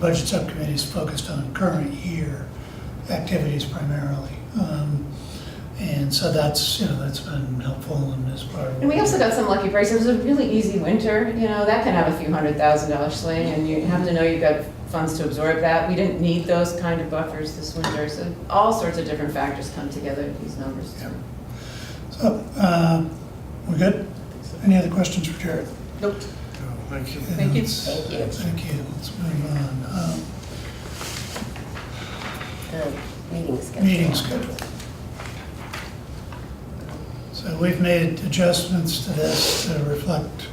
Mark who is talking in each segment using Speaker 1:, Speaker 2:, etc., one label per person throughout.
Speaker 1: budget subcommittee is focused on current year activities primarily. Um, And so that's, you know, that's been helpful and is part of.
Speaker 2: And we also got some lucky breaks. It was a really easy winter, you know, that can have a few hundred thousand dollar swing, and you have to know you've got funds to absorb that. We didn't need those kind of buffers this winter, so all sorts of different factors come together in these numbers.
Speaker 1: Yeah. So, uh, we're good? Any other questions for Jared?
Speaker 2: Nope.
Speaker 3: Thank you.
Speaker 2: Thank you.
Speaker 1: It's-
Speaker 2: Thank you.
Speaker 1: Thank you. Let's move on. Um,
Speaker 4: the meeting schedule.
Speaker 1: meeting schedule. So we've made adjustments to this to reflect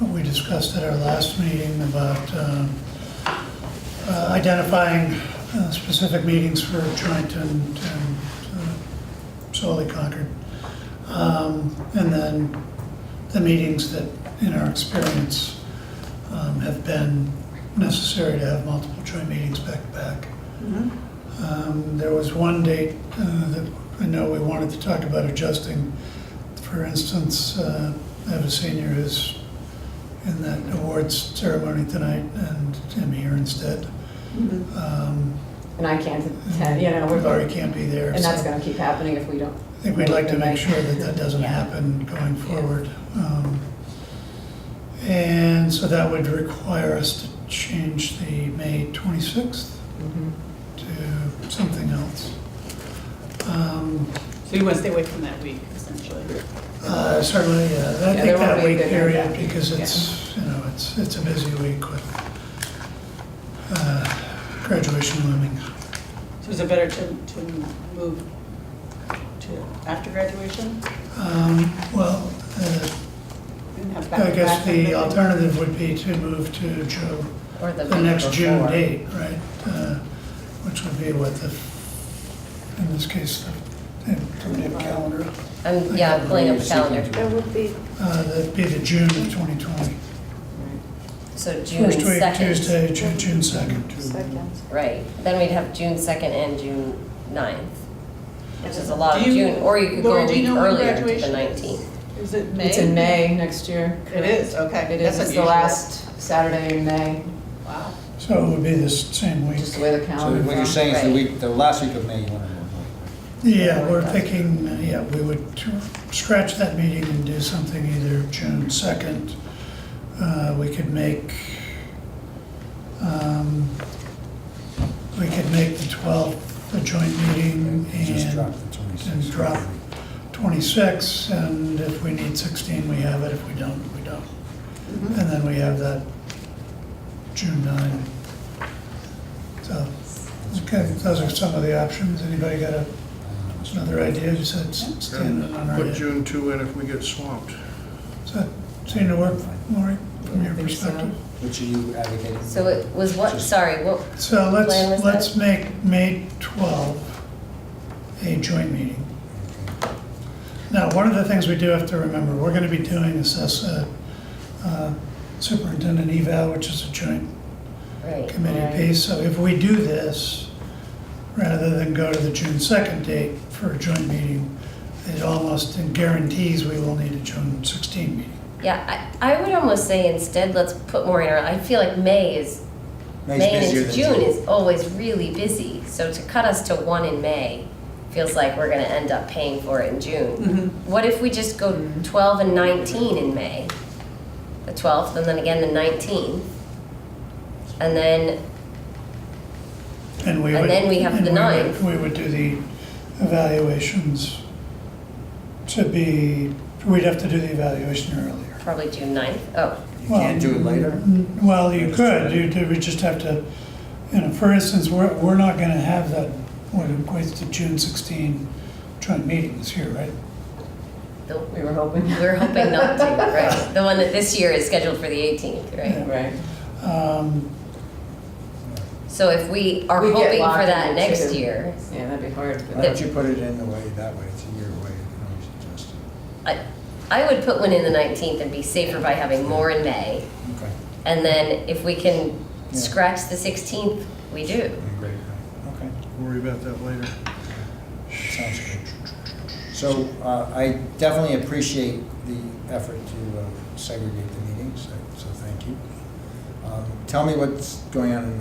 Speaker 1: what we discussed at our last meeting about um, uh, identifying uh, specific meetings for joint and and, uh, solely Concord. Um, And then the meetings that, in our experience, um, have been necessary to have multiple joint meetings back to back. Um, There was one date uh, that I know we wanted to talk about adjusting. For instance, uh, I have a senior who's in that awards ceremony tonight, and I'm here instead. Um,
Speaker 2: And I can't attend, you know, we're,
Speaker 1: Laurie can't be there.
Speaker 2: and that's
Speaker 1: so
Speaker 2: gonna keep happening if we don't.
Speaker 1: I think we'd like to make sure that that doesn't
Speaker 2: Yeah.
Speaker 1: happen going
Speaker 2: Yeah.
Speaker 1: forward. Um, And so that would require us to change the May 26th
Speaker 2: Mhm.
Speaker 1: to something else. Um,
Speaker 5: So you want to stay away from that week, essentially?
Speaker 1: Uh, Certainly, yeah. I
Speaker 2: Yeah,
Speaker 1: think
Speaker 2: there won't
Speaker 1: that
Speaker 2: be a
Speaker 1: week
Speaker 2: good
Speaker 1: period,
Speaker 2: impact.
Speaker 1: because it's, you know, it's, it's a busy week with uh, graduation looming.
Speaker 5: So is it better to, to move to after graduation?
Speaker 1: Um, Well, uh,
Speaker 5: and have
Speaker 1: I guess
Speaker 5: back-to-back
Speaker 1: the
Speaker 5: kind of thing?
Speaker 1: alternative would be to move to Ju-
Speaker 4: Or the
Speaker 1: the next
Speaker 4: week
Speaker 1: June
Speaker 4: before.
Speaker 1: date, right? Uh, Which would be what the, in this case, the, do we have a calendar?
Speaker 4: I'm, yeah, I'm pulling up the calendar.
Speaker 6: That would be,
Speaker 1: Uh, That'd be the June of 2020.
Speaker 4: So June
Speaker 1: First week,
Speaker 4: 2nd.
Speaker 1: Tuesday, Ju- June 2nd.
Speaker 6: second.
Speaker 4: Right, then we'd have June 2nd and June 9th, which is a lot of
Speaker 5: Do you-
Speaker 4: June, or you could go
Speaker 5: Laura,
Speaker 4: a
Speaker 5: do you
Speaker 4: week
Speaker 5: know when
Speaker 4: earlier to the
Speaker 5: graduation is?
Speaker 4: 19th.
Speaker 5: Is it May?
Speaker 2: It's in May next year.
Speaker 5: It is, okay.
Speaker 2: It
Speaker 5: That's
Speaker 2: is, it's the
Speaker 5: unusual.
Speaker 2: last Saturday in May,
Speaker 5: Wow.
Speaker 1: So it would be this same week.
Speaker 2: just the way the
Speaker 3: So
Speaker 2: calendar.
Speaker 3: what you're
Speaker 2: fell.
Speaker 3: saying is the
Speaker 4: Right.
Speaker 3: week, the last week of May, you want to move.
Speaker 1: Yeah, we're thinking, uh, yeah, we would tr- scratch that meeting and do something either June 2nd. Uh, We could make, um, we could make the 12th a joint meeting
Speaker 3: Just drop
Speaker 1: and
Speaker 3: the 26th.
Speaker 1: and drop. 26, and if we need 16, we have it, if we don't, we don't.
Speaker 5: Mm-hmm.
Speaker 1: And then we have that June 9. So, okay, those are some of the options. Anybody got a Another idea, just had s- standing on our
Speaker 7: Put
Speaker 1: head.
Speaker 7: June 2 in if we get swamped.
Speaker 1: Does that seem to work, Lori, from your
Speaker 2: I think so.
Speaker 1: perspective?
Speaker 3: Which are you advocating?
Speaker 4: So it was what, sorry, what,
Speaker 1: So
Speaker 4: Plan
Speaker 1: let's,
Speaker 4: was
Speaker 1: let's make May 12 a joint meeting. Now, one of the things we do have to remember, we're going to be doing is this uh, uh, superintendent eval, which is a joint
Speaker 4: right,
Speaker 1: committee
Speaker 2: Right.
Speaker 1: piece. So if we do this, rather than go to the June 2nd date for a joint meeting, it almost guarantees we will need a June 16 meeting.
Speaker 4: yeah, I, I would almost say instead, let's put more in our, I feel like May is,
Speaker 3: May's
Speaker 4: May
Speaker 3: busier
Speaker 4: into
Speaker 3: than
Speaker 4: June is always really busy, so to cut us to one in May feels like we're gonna end up paying for it in June.
Speaker 5: Mm-hmm.
Speaker 4: What if we just go 12 and 19 in May? The 12th, and then again the 19th? And then,
Speaker 1: And we
Speaker 4: And
Speaker 1: would.
Speaker 4: then we have
Speaker 1: and
Speaker 4: the
Speaker 1: would-
Speaker 4: ninth.
Speaker 1: We would do the evaluations to be, we'd have to do the evaluation earlier.
Speaker 4: probably June 9th? Oh,
Speaker 3: You can't do it later?
Speaker 1: Mm, Well, you
Speaker 3: Just
Speaker 1: could,
Speaker 3: try.
Speaker 1: you, do- we just have to, you know, for instance, we're, we're not gonna have that, what equates to June 16 joint meetings here, right?
Speaker 4: the-
Speaker 2: We were hoping.
Speaker 4: we're hoping not to, right? The one that this year is scheduled for the 18th, right?
Speaker 2: Right.
Speaker 1: Um,
Speaker 4: So if we are
Speaker 2: We get
Speaker 4: hoping
Speaker 2: locked
Speaker 4: for that
Speaker 2: in
Speaker 4: next
Speaker 2: too.
Speaker 4: year,
Speaker 2: Yeah, that'd be hard,
Speaker 3: Why
Speaker 2: but
Speaker 3: don't you put it in the way, that way, it's a year away, you can always adjust it.
Speaker 4: I, I would put one in the 19th and be safer by having more in May.
Speaker 3: Okay,
Speaker 4: And then if we can
Speaker 3: Yeah.
Speaker 4: scratch the 16th, we do.
Speaker 3: Yeah, great, great. okay,
Speaker 7: Worry about that later.
Speaker 3: sounds good. So uh, I definitely appreciate the effort to uh, segregate the meetings, so so thank you. Um, Tell me what's going on in